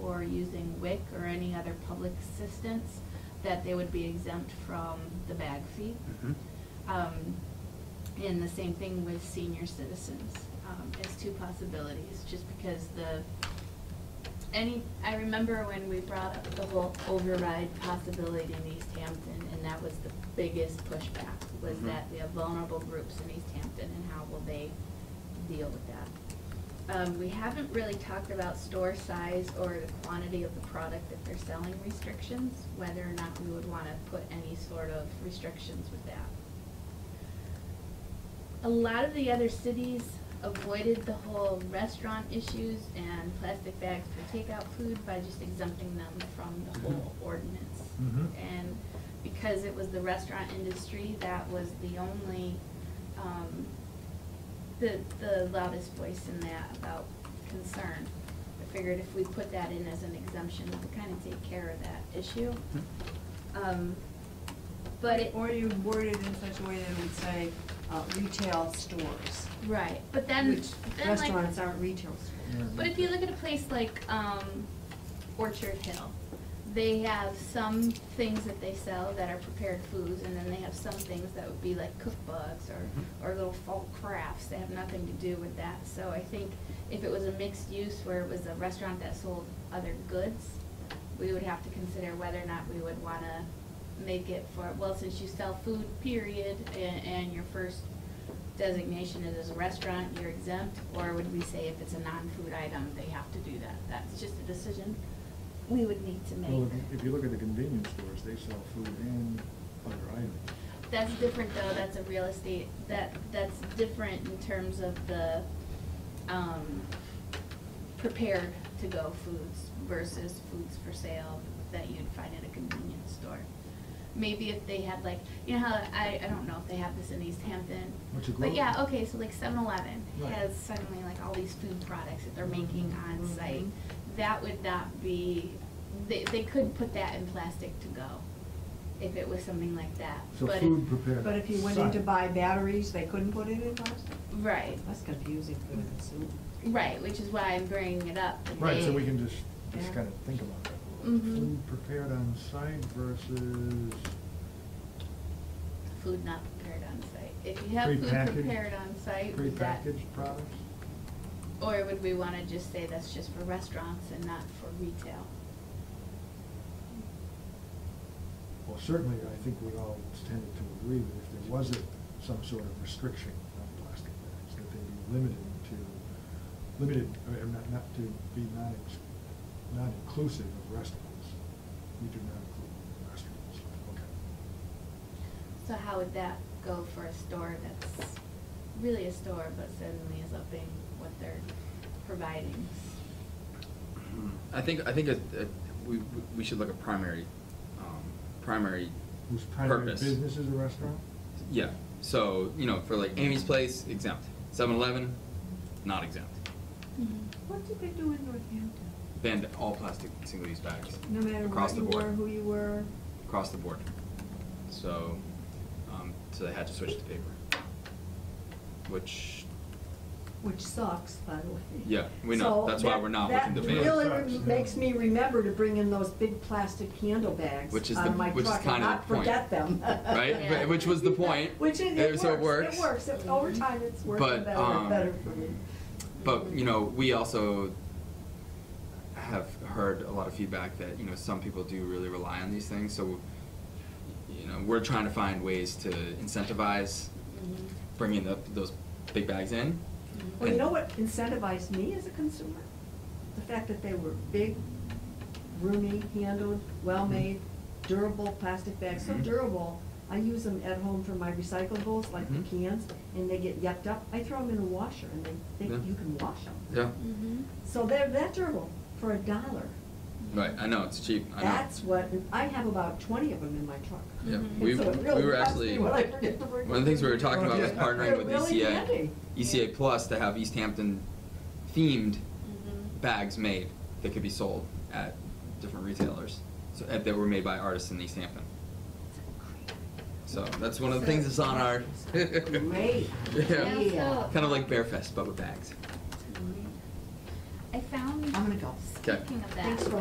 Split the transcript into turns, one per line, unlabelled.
were using WIC or any other public assistance, that they would be exempt from the bag fee.
Mm-hmm.
Mhm.
Um, and the same thing with senior citizens, um, as two possibilities, just because the, any, I remember when we brought up the whole override possibility in East Hampton, and that was the biggest pushback, was
Mhm.
that we have vulnerable groups in East Hampton, and how will they deal with that? Um, we haven't really talked about store size or the quantity of the product that they're selling restrictions, whether or not we would wanna put any sort of restrictions with that a lot of the other cities avoided the whole restaurant issues and plastic bags for takeout food by just exempting them from the whole ordinance.
Mhm.
And because it was the restaurant industry, that was the only, um, the, the loudest voice in that about concern. I figured if we put that in as an exemption, we could kind of take care of that issue. Um, but it,
Or you word it in such a way that it would say, uh, retail stores.
right, but then,
Which
then like.
restaurants aren't retail stores.
But if you look at a place like um, Orchard Hill, they have some things that they sell that are prepared foods, and then they have some things that would be like cookbooks or, or little folk crafts that have nothing to do with that. So I think if it was a mixed use where it was a restaurant that sold other goods, we would have to consider whether or not we would want to make it for, well, since you sell food, period, and, and your first designation it as a restaurant, you're exempt, or would we say if it's a non-food item, they have to do that? That's just a decision we would need to
Well,
make.
if- if you look at the convenience stores, they sell food and other items.
That's different though, that's a real estate, that, that's different in terms of the, um, prepared to go foods versus foods for sale that you'd find at a convenience store. Maybe if they had like, you know how, I, I don't know if they have this in East Hampton.
What's it
But
called?
yeah, okay, so like seven eleven
Right.
has suddenly like all these food products that they're making on
Mm-hmm.
site.
Mhm.
That would not be, they, they could put that in plastic to go if it was something like that.
So
But if-
food prepared.
But if you went in to buy batteries, they couldn't put it in plastic?
Right,
That's confusing for the consumer.
right, which is why I'm bringing it up. and
Right, so
they-
we can just, just
Yeah.
kind of think about that. a
Mhm.
little. Food prepared on site versus,
Food not prepared on site. If you have food
Prepackaged-
prepared on site, would that,
prepackaged products?
or would we wanna just say that's just for restaurants and not for retail?
Well, certainly, I think we all tended to agree that if there was a- some sort of restriction on plastic bags, that they be limited to, limited, or not, not to be not, ex- not inclusive of restaurants. We do not include restaurants, okay.
So how would that go for a store that's really a store but suddenly is upping what they're providing?
Mm-hmm.
I think, I think it- it- we, we should look at primary, um, primary
Whose primary
Purpose.
business is a restaurant?
Yeah, so, you know, for like Amy's Place, exempt. 7 Eleven, not exempt.
What did they do in Northampton?
Banned all plastic single use bags.
No matter
across the
what you were,
board.
who you were,
Across the board. So, um, so they had to switch to paper. Which,
which sucks, by the way.
Yeah, we know.
So
That's why
that-
we're not looking to ban.
That really
Sucks,
re-
yeah.
makes me remember to bring in those big plastic candle bags
Which is
out
the-
of my
which is
truck and
kinda the
not forget them.
right?
Yeah.
But- Which was the point.
Which it,
Uh,
it
so it
works, it works, It- over time it's
But,
working better
um,
and better for me.
But, you know, we also have heard a lot of feedback that, you know, some people do really rely on these things, so, you know, we're trying to find ways to incentivize bringing the, those big bags in.
Mm-hmm. Well, you know what incentivized me as a consumer? The fact that they were big, roomy, handled, well-made, durable plastic bags, so
Mhm.
durable. I use them at home for my recyclables, like the
Mhm.
cans, and they get yucked up. I throw them in a washer and they, they,
Yeah.
you can wash them.
Yeah,
Mm-hmm.
So they're that durable for a dollar.
right, I know, it's cheap, I know.
That's what, I have about twenty of them in my truck.
Yeah,
Mhm.
we,
So it
we
really
were
bugs
actually,
me
one
when I
of
forget to bring
the things we were
them.
talking about was
Yeah.
partnering with E
They're really
ECA,
handy.
ECA Plus to have East Hampton themed bags made that could be sold at different retailers, so, uh, that were made by artists in East Hampton. So that's one of the things that's on our.
Great.
Yeah,
Yeah.
kind of like Bearfest, but with bags.
I found,
I'm gonna go.
speaking of that.
Thanks for